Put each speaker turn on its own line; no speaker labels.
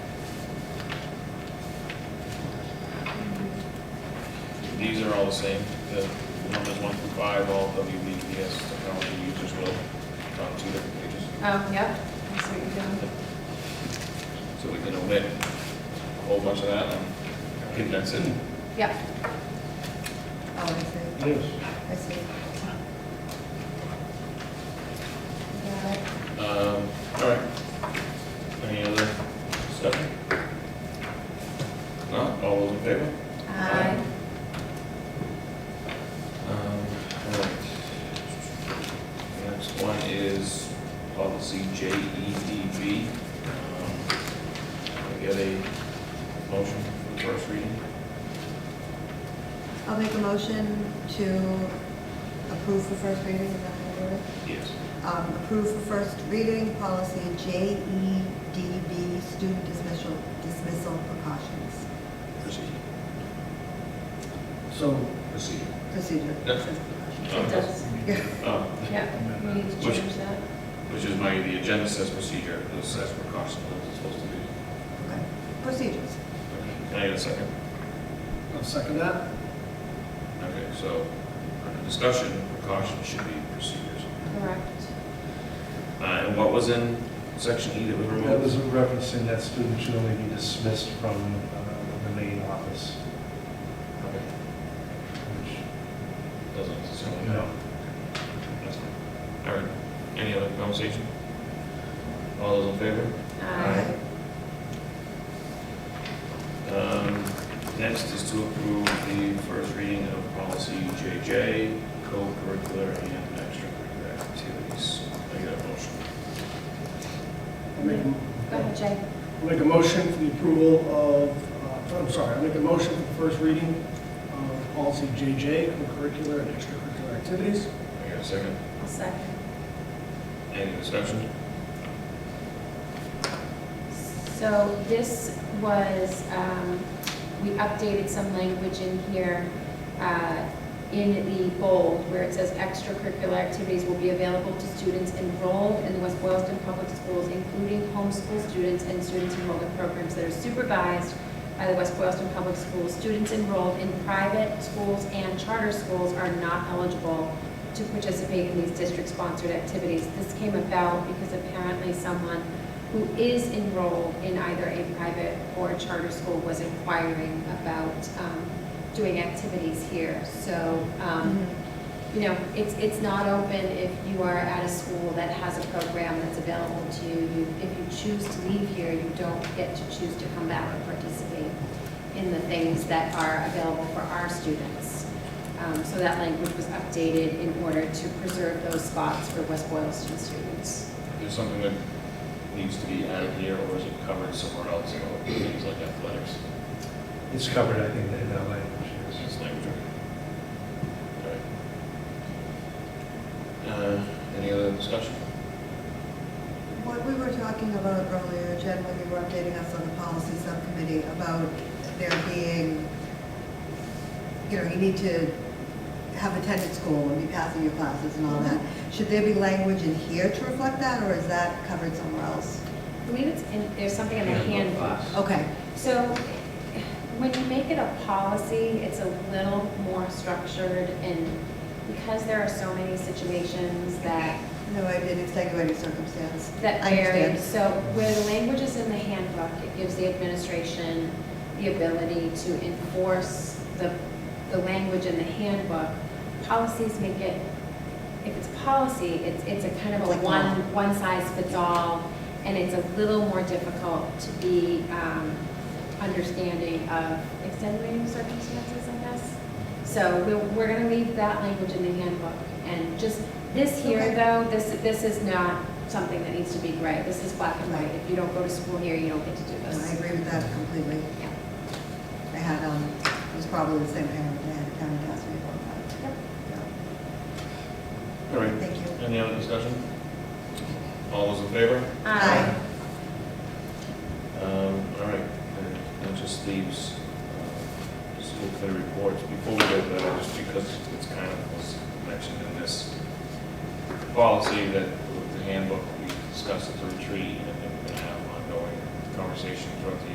These are all the same, the numbers one through five, all WBPS technology users will, on two different pages.
Oh, yep, that's what you're doing.
So we can omit a whole bunch of that and condense it.
Yep. Oh, I see.
Yes.
I see. Got it.
Um, all right. Any other stuff? No, all those in favor?
Aye.
Um, all right. The next one is policy JEDV. Um, can I get a motion for the first reading.
I'll make a motion to approve for first reading, is that how you do it?
Yes.
Um, Approve for first reading, policy JEDB, student dismissal, dismissal precautions,
Proceed.
So,
Proceed.
procedure.
Yeah.
Says precautions.
Um,
Yeah.
um,
Yep, we need to
Which-
change that.
Which is my, the agenda says procedure, it says precaution, that's what it's supposed to be.
Okay. Procedures.
Can I get a second?
I'll second that.
Okay, so, under discussion, precaution should be procedures.
Correct.
Uh, and what was in section E that was
That
removed?
was referencing that students should only be dismissed from uh, the main office,
Okay,
which,
Doesn't necessarily.
you know,
That's fine. All right, any other conversation? All those in favor?
Aye.
Um, next is to approve the first reading of policy JJ, co-curricular and extracurricular activities. Can I get a motion.
I make,
Go ahead, Jay.
I make a motion for the approval of, uh, I'm sorry, I make a motion for the first reading of policy JJ, curricular and extracurricular activities.
Can I get a second?
I'll second.
Any discussion?
So this was, um, we updated some language in here, uh, in the bold, where it says extracurricular activities will be available to students enrolled in the West Boylston Public Schools, including homeschool students and students enrolled in programs that are supervised by the West Boylston Public Schools. Students enrolled in private schools and charter schools are not eligible to participate in these district-sponsored activities. This came about because apparently someone who is enrolled in either a private or a charter school was inquiring about um, doing activities here. So, um, you know, it's, it's not open if you are at a school that has a program that's available to you. You- If you choose to leave here, you don't get to choose to come back and participate in the things that are available for our students. Um, So that language was updated in order to preserve those spots for West Boylston students.
There's something that needs to be added here, or is it covered somewhere else, you know, things like athletics,
it's covered, I think, in that language. yes.
it's language. All right. Uh, Any other discussion?
What we were talking about earlier, Jen, when you were updating us on the policy subcommittee, about there being, you know, you need to have attended school and be passing your classes and all that. Should there be language in here to reflect that, or is that covered somewhere else?
I believe it's in, there's something in the handbook.
Okay,
So when you make it a policy, it's a little more structured and because there are so many situations that,
no, I did extenuating circumstance.
that
I
vary.
understand.
So where the language is in the handbook, it gives the administration the ability to enforce the, the language in the handbook. Policies make it if it's policy, it's, it's a kind of a
Like
one,
law.
one size fits all, and it's a little more difficult to be, um, understanding of extenuating circumstances, I guess. So we're, we're gonna leave that language in the handbook, and just, this here,
Okay.
though, this, this is not something that needs to be gray, this is black and white,
Right.
if you don't go to school here, you don't get to do
No, I
this.
agree with that completely.
Yeah.
I had, um, it was probably the same parent that had come and asked me about
All right,
that. Thank you.
any other discussion? All those in favor?
Aye.
Um, all right, and that just leaves, uh, school committee reports. Before we go to that, just because it's kind of was mentioned in this policy that with the handbook, we discussed at the retreat, and then we're gonna have ongoing conversations throughout the